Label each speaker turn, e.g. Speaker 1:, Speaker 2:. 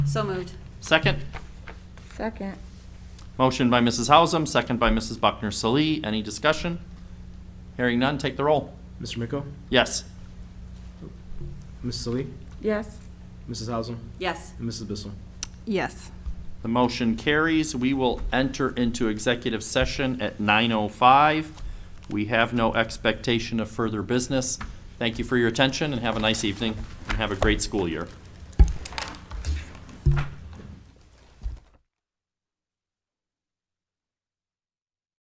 Speaker 1: So moved.
Speaker 2: Second?
Speaker 3: Second.
Speaker 2: Motion by Mrs. Hausum, second by Mrs. Buckner Salee. Any discussion? Hearing none, take the roll.
Speaker 4: Mr. Miko?
Speaker 2: Yes.
Speaker 4: Mrs. Lee?
Speaker 3: Yes.
Speaker 4: Mrs. Hausum?
Speaker 1: Yes.
Speaker 4: And Mrs. Bissell?
Speaker 5: Yes.
Speaker 2: The motion carries. We will enter into executive session at 9:05. We have no expectation of further business. Thank you for your attention and have a nice evening and have a great school year.